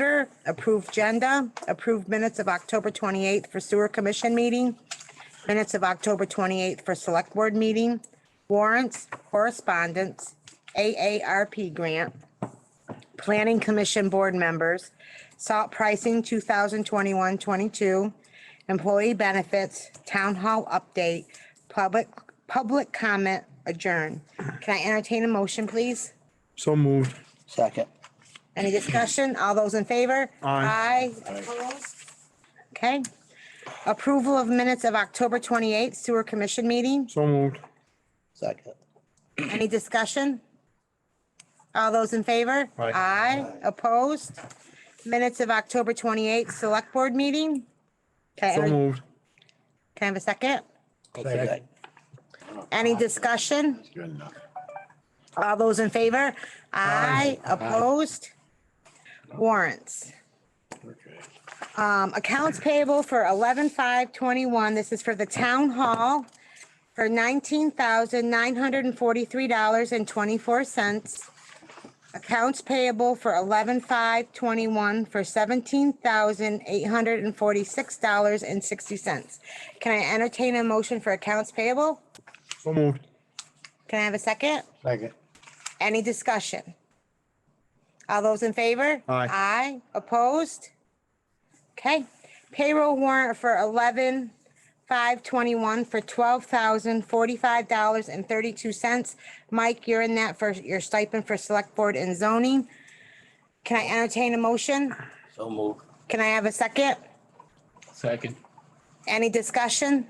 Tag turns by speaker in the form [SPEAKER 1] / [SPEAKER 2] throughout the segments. [SPEAKER 1] order, approve agenda, approve minutes of October 28th for sewer commission meeting, minutes of October 28th for select board meeting, warrants, correspondence, AARP grant, planning commission board members, salt pricing 2021-22, employee benefits, town hall update, public, public comment adjourn. Can I entertain a motion, please?
[SPEAKER 2] So moved.
[SPEAKER 3] Second.
[SPEAKER 1] Any discussion? All those in favor? Aye.
[SPEAKER 2] Aye.
[SPEAKER 1] Opposed? Okay. Approval of minutes of October 28th sewer commission meeting.
[SPEAKER 2] So moved.
[SPEAKER 3] Second.
[SPEAKER 1] Any discussion? All those in favor?
[SPEAKER 2] Aye.
[SPEAKER 1] Aye. Opposed? Minutes of October 28th select board meeting. Can I
[SPEAKER 2] So
[SPEAKER 1] enter-
[SPEAKER 2] moved.
[SPEAKER 1] can I have a second?
[SPEAKER 3] Second.
[SPEAKER 1] Any discussion?
[SPEAKER 4] Good enough.
[SPEAKER 1] All those in favor? Aye. Opposed? Warrants.
[SPEAKER 4] Okay.
[SPEAKER 1] Um, accounts payable for eleven five twenty-one, this is for the town hall for nineteen thousand nine hundred and forty-three dollars and twenty-four cents. Accounts payable for eleven five twenty-one for seventeen thousand eight hundred and forty-six dollars and sixty cents. Can I entertain a motion for accounts payable?
[SPEAKER 2] So moved.
[SPEAKER 1] Can I have a second?
[SPEAKER 4] Second.
[SPEAKER 1] Any discussion? All those in favor?
[SPEAKER 2] Aye.
[SPEAKER 1] Aye, opposed? Okay, payroll warrant for eleven five twenty-one for twelve thousand forty-five dollars and thirty-two cents. Mike, you're in that for your stipend for select board and zoning. Can I entertain a motion?
[SPEAKER 3] So move.
[SPEAKER 1] Can I have a second?
[SPEAKER 5] Second.
[SPEAKER 1] Any discussion?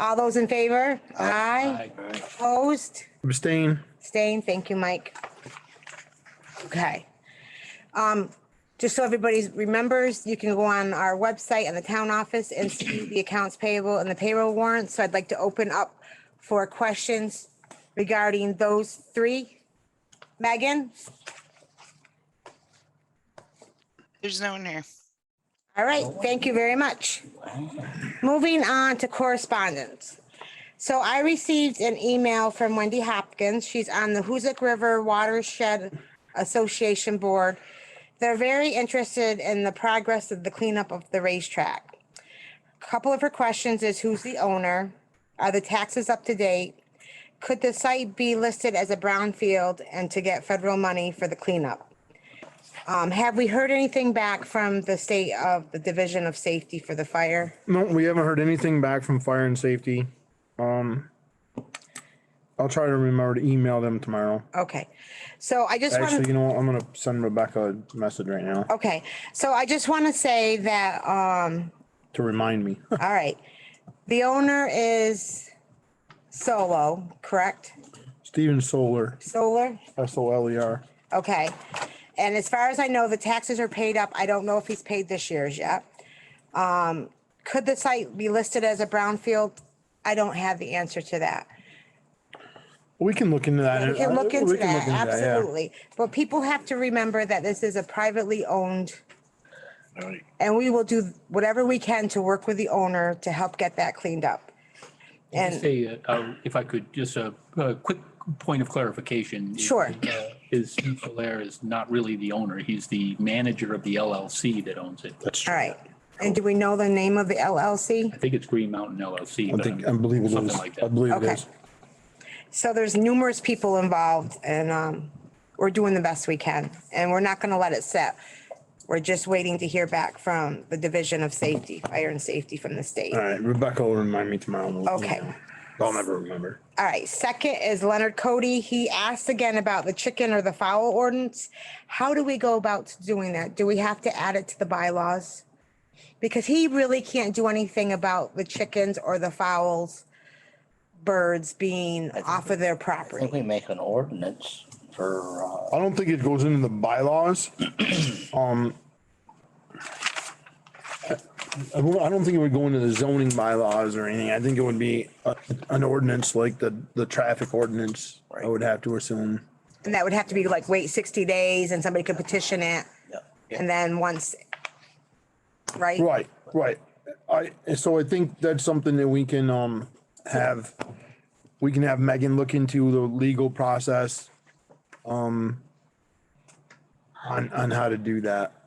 [SPEAKER 1] All those in favor? Aye,
[SPEAKER 5] Aye.
[SPEAKER 1] opposed?
[SPEAKER 2] Abstain.
[SPEAKER 1] Staying, thank you, Mike. Okay. Um, just so everybody remembers, you can go on our website and the town office and see the accounts payable and the payroll warrants. So I'd like to open up for questions regarding those three. Megan,
[SPEAKER 6] There's no one here.
[SPEAKER 1] all right, thank you very much. Moving on to correspondence. So I received an email from Wendy Hopkins. She's on the Hoosick River Watershed Association Board. They're very interested in the progress of the cleanup of the racetrack. Couple of her questions is who's the owner? Are the taxes up to date? Could the site be listed as a brownfield and to get federal money for the cleanup? Um, have we heard anything back from the state of the Division of Safety for the fire?
[SPEAKER 2] No, we haven't heard anything back from fire and safety. Um, I'll try to remember to email them tomorrow.
[SPEAKER 1] Okay, so I just want
[SPEAKER 2] Actually,
[SPEAKER 1] to,
[SPEAKER 2] you know what? I'm gonna send Rebecca a message right now
[SPEAKER 1] okay, so I just want to say that, um,
[SPEAKER 2] to remind me.
[SPEAKER 1] all right. The owner is Solo, correct?
[SPEAKER 2] Steven Solar,
[SPEAKER 1] Solar?
[SPEAKER 2] S O L E R.
[SPEAKER 1] Okay. And as far as I know, the taxes are paid up. I don't know if he's paid this year's yet. Um, could the site be listed as a brownfield? I don't have the answer to that.
[SPEAKER 2] We can look into that.
[SPEAKER 1] We can look
[SPEAKER 2] We
[SPEAKER 1] into
[SPEAKER 2] can
[SPEAKER 1] that,
[SPEAKER 2] look into yeah.
[SPEAKER 1] absolutely. But people have to remember that this is a privately owned
[SPEAKER 4] All right.
[SPEAKER 1] and we will do whatever we can to work with the owner to help get that cleaned up. And
[SPEAKER 5] Just a, uh, if I could, just a, a quick point of clarification.
[SPEAKER 1] Sure.
[SPEAKER 5] Uh, Is Steve Solaire is not really the owner. He's the manager of the LLC that owns it.
[SPEAKER 2] That's
[SPEAKER 1] all
[SPEAKER 2] true.
[SPEAKER 1] right. And do we know the name of the LLC?
[SPEAKER 5] I think it's Green Mountain LLC.
[SPEAKER 2] I
[SPEAKER 5] but
[SPEAKER 2] think, I
[SPEAKER 5] I'm-
[SPEAKER 2] believe it is.
[SPEAKER 5] Something like
[SPEAKER 2] I
[SPEAKER 5] that.
[SPEAKER 2] believe it
[SPEAKER 1] Okay.
[SPEAKER 2] is.
[SPEAKER 1] So there's numerous people involved and um, we're doing the best we can and we're not gonna let it set. We're just waiting to hear back from the Division of Safety, Fire and Safety from the state.
[SPEAKER 2] All right, Rebecca will remind me tomorrow. and we'll
[SPEAKER 1] Okay.
[SPEAKER 2] email. I'll never remember.
[SPEAKER 1] All right, second is Leonard Cody. He asked again about the chicken or the fowl ordinance. How do we go about doing that? Do we have to add it to the bylaws? Because he really can't do anything about the chickens or the fowls, birds being off of their
[SPEAKER 3] I think
[SPEAKER 1] property.
[SPEAKER 3] we make an ordinance for, uh,
[SPEAKER 2] I don't think it goes into the bylaws. Um. I, I won't- I don't think it would go into the zoning bylaws or anything. I think it would be a- an ordinance like the, the traffic ordinance. I would have to assume.
[SPEAKER 1] And that would have to be like, wait 60 days and somebody could petition it. And then once, right?
[SPEAKER 2] Right, right. I, so I think that's something that we can, um, have, we can have Megan look into the legal process. Um, on, on how to do that.